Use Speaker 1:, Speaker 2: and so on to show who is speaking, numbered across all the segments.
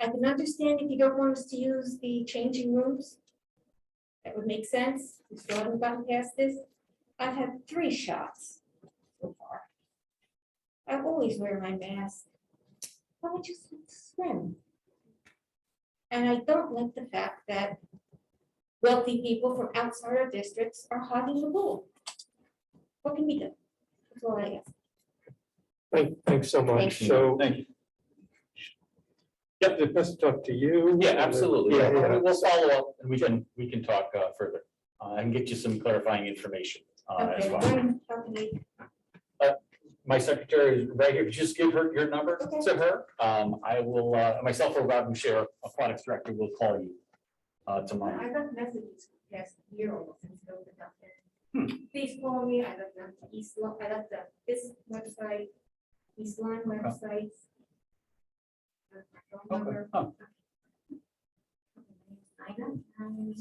Speaker 1: I can understand if you don't want us to use the changing rooms. That would make sense. We still haven't gotten past this. I've had three shots so far. I always wear my mask. I would just swim. And I don't like the fact that wealthy people from outside our districts are hogging the pool. What can we do? That's all I ask.
Speaker 2: Thank, thanks so much.
Speaker 1: Thank you.
Speaker 2: So,
Speaker 3: Thank you.
Speaker 2: yeah, it must talk to you.
Speaker 3: Yeah, absolutely.
Speaker 2: Yeah,
Speaker 3: Yeah,
Speaker 2: yeah.
Speaker 3: we- We'll follow up and we can, we can talk uh, further. Uh, I can get you some clarifying information uh, as
Speaker 1: Okay,
Speaker 3: well.
Speaker 1: Lauren, how can we-
Speaker 3: My secretary is right here. Just give her your number
Speaker 1: Okay.
Speaker 3: to her. Um, I will, uh, myself or Rob Share, Aquatics Director, will call you uh, tomorrow.
Speaker 1: I got messages past year almost since it opened up
Speaker 3: Hmm.
Speaker 1: there. Please call me, I left them, to East Lawn, I left the, this website, East Lawn websites. Uh, my phone
Speaker 3: Okay.
Speaker 1: number.
Speaker 3: Oh,
Speaker 1: I don't,
Speaker 3: Hmm.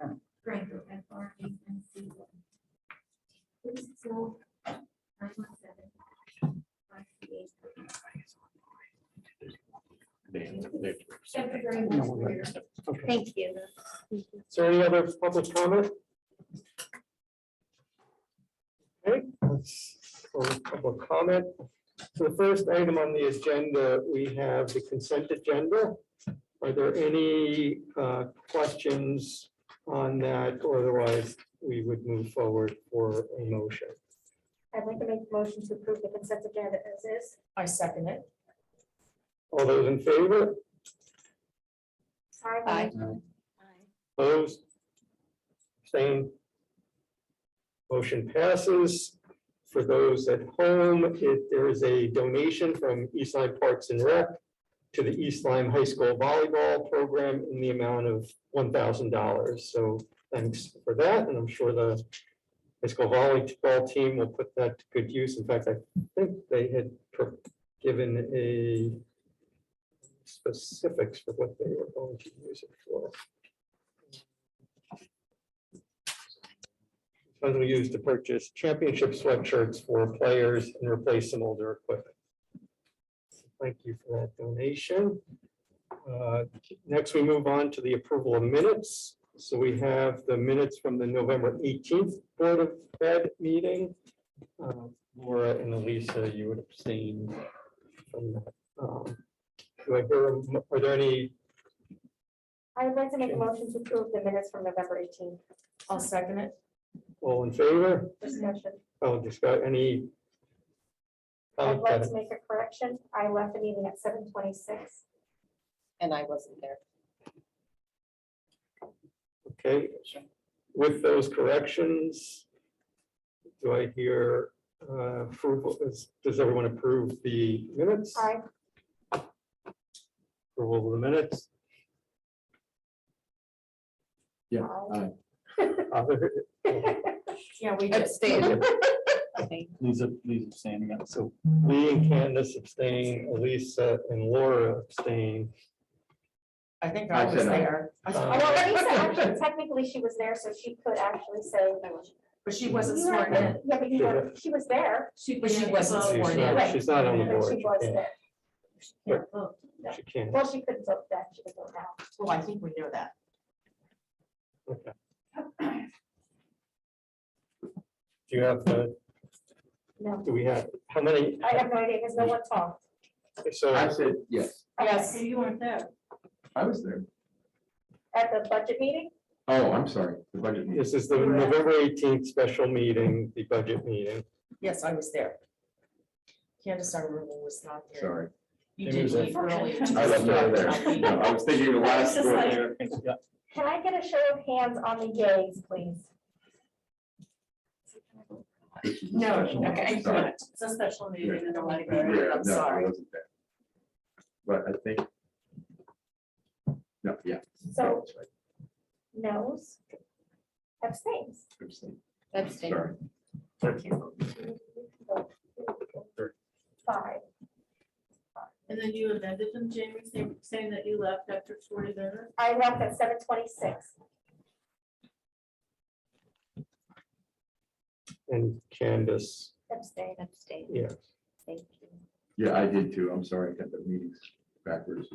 Speaker 1: um, Grindr, F R A N C Y. This is all 917, 538.
Speaker 3: they- they-
Speaker 1: Thank you very much for your-
Speaker 2: Okay.
Speaker 1: Thank you.
Speaker 2: Is there any other public comment? Okay, that's for public comment. So the first item on the agenda, we have the consent agenda. Are there any uh, questions on that? Otherwise, we would move forward for a motion.
Speaker 1: I'd like to make a motion to approve the consent agenda as is.
Speaker 4: I second it.
Speaker 2: All those in favor?
Speaker 1: Aye.
Speaker 4: Aye.
Speaker 2: Opposed? Same. Motion passes. For those at home, it- there is a donation from East Lyme Parks and Rec to the East Lyme High School Volleyball Program in the amount of one thousand dollars. So thanks for that, and I'm sure the high school volleyball team will put that to good use. In fact, I think they had pro- given a specifics for what they were going to use it for. funds we use to purchase championship sweatshirts for players and replace some older equipment. Thank you for that donation. Uh, Next, we move on to the approval of minutes. So we have the minutes from the November eighteenth Board of Fed meeting. Uh, Laura and Elisa, you would abstain from that. Um, Do I hear, a mo- are there any,
Speaker 5: I would like to make a motion to approve the minutes from November 18th.
Speaker 4: I'll second it.
Speaker 2: all in favor?
Speaker 5: discussion.
Speaker 2: Oh, just got any?
Speaker 5: I'd
Speaker 2: comment?
Speaker 5: like to make a correction. I left the meeting at 7:26.
Speaker 4: And I wasn't there.
Speaker 2: Okay, with those corrections, do I hear uh, approval, Is- does everyone approve the minutes?
Speaker 5: Aye.
Speaker 2: Approval of the minutes?
Speaker 3: Yeah,
Speaker 5: aye.
Speaker 2: Other-
Speaker 4: Yeah, we
Speaker 2: did.
Speaker 3: Lisa, Lisa standing up. So
Speaker 2: Me and Candace abstain, Elisa and Laura abstain.
Speaker 4: I think I was there. I-
Speaker 2: Uh,
Speaker 5: I know Lisa, actually, technically she was there, so she could actually say.
Speaker 4: But she wasn't
Speaker 5: You were-
Speaker 4: sworn in.
Speaker 5: Yeah, but you were, she was there.
Speaker 4: She, but she wasn't
Speaker 2: She's
Speaker 4: sworn in.
Speaker 2: not- she's not on the
Speaker 5: but
Speaker 2: board.
Speaker 5: She
Speaker 2: she
Speaker 5: was
Speaker 2: can't-
Speaker 5: there.
Speaker 2: She can't.
Speaker 5: Well, she couldn't vote that. She could vote now.
Speaker 4: Well, Oh, I think we know that.
Speaker 2: Okay. Do you have, the?
Speaker 5: No.
Speaker 2: do we have, how many?
Speaker 5: I have no idea because no one talked.
Speaker 2: So
Speaker 6: I said, yes,
Speaker 4: Yes.
Speaker 5: You weren't there.
Speaker 6: I was there.
Speaker 5: At the budget meeting?
Speaker 6: Oh, I'm sorry, the budget meeting.
Speaker 2: This is the November eighteenth special meeting, the budget meeting.
Speaker 4: Yes, I was there. Candace, I remember was not there.
Speaker 6: sorry.
Speaker 4: You
Speaker 2: It
Speaker 4: did
Speaker 2: was
Speaker 4: leave
Speaker 2: a-
Speaker 4: early.
Speaker 6: I left out there. No, I was thinking the last.
Speaker 5: I was just like-
Speaker 6: one.
Speaker 5: Can I get a show of hands on the yays, please?
Speaker 6: This is a
Speaker 4: No,
Speaker 6: special one,
Speaker 4: okay,
Speaker 6: sorry.
Speaker 4: it's a special meeting, and I want to
Speaker 6: Yeah,
Speaker 4: be there, I'm
Speaker 6: no, I
Speaker 4: sorry.
Speaker 6: wasn't there. But I think. No, yeah.
Speaker 5: So
Speaker 6: that's right,
Speaker 5: noes, abstains.
Speaker 6: I'm sorry.
Speaker 4: That's
Speaker 6: Sorry.
Speaker 5: Five.
Speaker 7: And then you amended them, Jamie, saying, saying that you left after forty minutes?
Speaker 5: I left at seven twenty-six.
Speaker 2: And Candace,
Speaker 5: Abstain. Abstain.
Speaker 2: yeah.
Speaker 5: Thank you.
Speaker 6: Yeah, I did too. I'm sorry, I got the meetings backwards.